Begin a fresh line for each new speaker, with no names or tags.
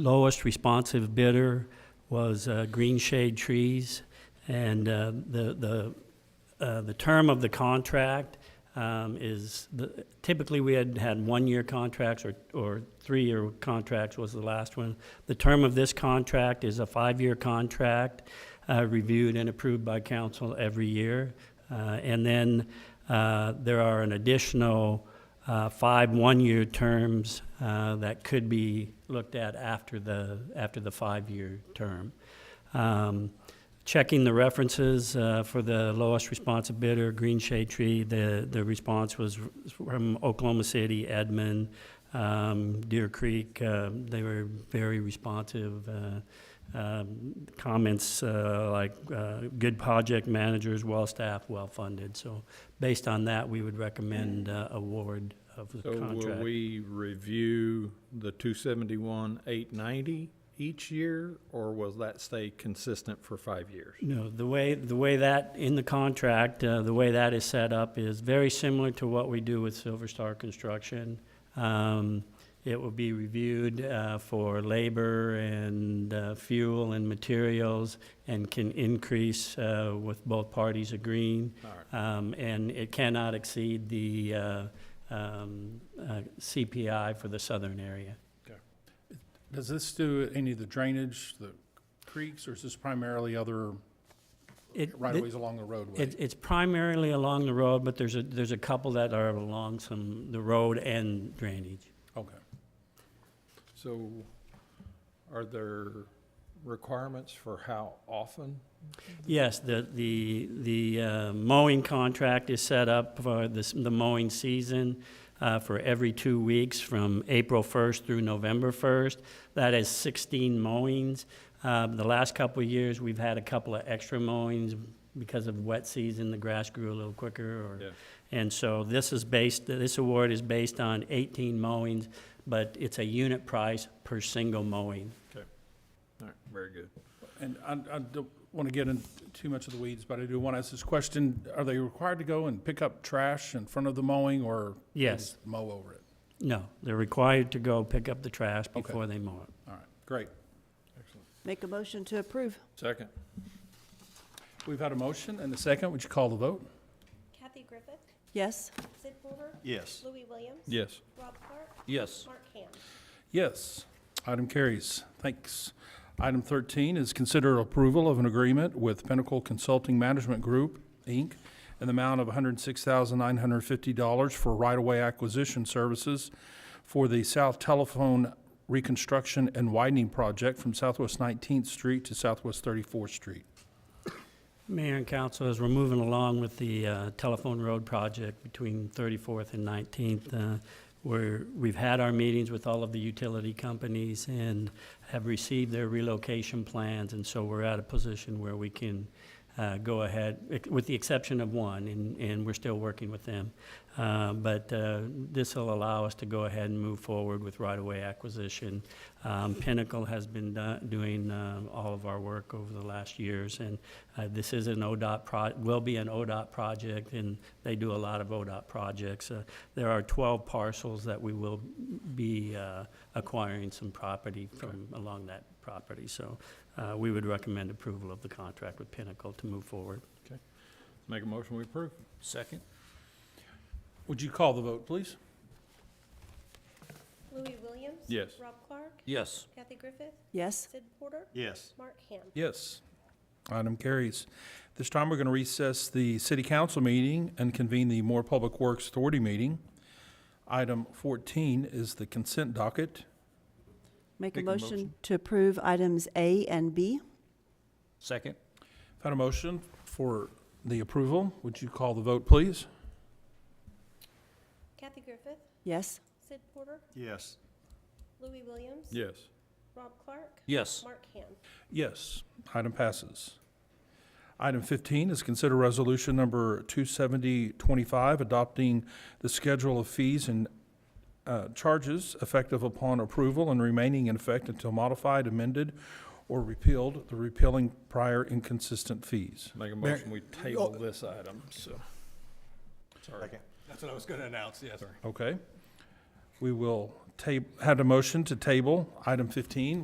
Lowest responsive bidder was uh, Green Shade Trees, and uh, the, the, uh, the term of the contract um, is, the- typically, we had had one-year contracts or, or three-year contracts was the last one. The term of this contract is a five-year contract, uh, reviewed and approved by council every year. Uh, And then uh, there are an additional uh, five one-year terms uh, that could be looked at after the, after the five-year term. Um, Checking the references uh, for the lowest responsive bidder, Green Shade Tree, the, the response was from Oklahoma City, Edmond, um, Deer Creek. uh, They were very responsive. uh, um, Comments uh, like uh, good project managers, well-staffed, well-funded. So based on that, we would recommend uh, award of the
So will
contract.
we review the two seventy-one, eight ninety each year, or will that stay consistent for five years?
No, the way, the way that, in the contract, uh, the way that is set up is very similar to what we do with Silver Star Construction. Um, It will be reviewed uh, for labor and uh, fuel and materials and can increase uh, with both parties agreeing.
All right.
Um, And it cannot exceed the uh, um, uh, CPI for the southern area.
Does this do any of the drainage, the creeks, or is this primarily other
It-
right-of-ways along the roadway?
It, it's primarily along the road, but there's a, there's a couple that are along some, the road and drainage.
Okay.
So are there requirements for how often?
Yes, the, the, the uh, mowing contract is set up for this, the mowing season uh, for every two weeks from April 1st through November 1st. That is 16 mowings. Um, The last couple of years, we've had a couple of extra mowings because of wet season, the grass grew a little quicker or
Yeah.
And so this is based, this award is based on 18 mowings, but it's a unit price per single mowing.
All right, very good.
And I, I don't want to get into too much of the weeds, but I do want to ask this question. Are they required to go and pick up trash in front of the mowing, or? they
Yes.
just Mow over it?
No, they're required to go pick up the trash
Okay.
before they mow it.
All right, great.
Excellent.
Make a motion to approve.
Second,
We've had a motion and a second. Would you call the vote?
Kathy Griffith,
Yes,
Sid Porter,
Yes.
Louis Williams.
yes.
Rob Clark,
Yes.
Mark Ham.
Yes. Item carries. Thanks. Item 13 is consider approval of an agreement with Pinnacle Consulting Management Group, Inc., in the amount of $106,950 for right-of-way acquisition services for the South Telephone Reconstruction and Widening Project from Southwest 19th Street to Southwest 34th Street.
Mayor and council, as we're moving along with the uh, telephone road project between 34th and 19th, uh, we're, we've had our meetings with all of the utility companies and have received their relocation plans, and so we're at a position where we can uh, go ahead, ex- with the exception of one, and, and we're still working with them. Uh, But this will allow us to go ahead and move forward with right-of-way acquisition. Um, Pinnacle has been do- doing um, all of our work over the last years, and uh, this is an ODOT, pro- will be an ODOT project, and they do a lot of ODOT projects. Uh, There are 12 parcels that we will be uh, acquiring some property from along that property. So uh, we would recommend approval of the contract with Pinnacle to move forward.
Make a motion, we approve?
Second?
Would you call the vote, please?
Louis Williams.
Yes.
Rob Clark,
Yes.
Kathy Griffith,
yes,
Sid Porter,
Yes.
Mark Ham.
Yes. Item carries. This time, we're going to recess the city council meeting and convene the More Public Works Authority meeting. Item 14 is the consent docket.
make a
Make a
motion
motion.
to approve items A and B.
Second?
Had a motion for the approval. Would you call the vote, please?
Kathy Griffith,
Yes,
Sid Porter,
Yes.
Louis Williams.
Yes.
Rob Clark,
Yes.
Mark Ham.
Yes. Item passes. Item 15 is consider resolution number 27025, adopting the schedule of fees and uh, charges effective upon approval and remaining in effect until modified, amended, or repealed, the repealing prior inconsistent fees.
Make a motion, we table this item, so. Sorry.
That's what I was going to announce, yes.
Okay? We will ta, had a motion to table item 15.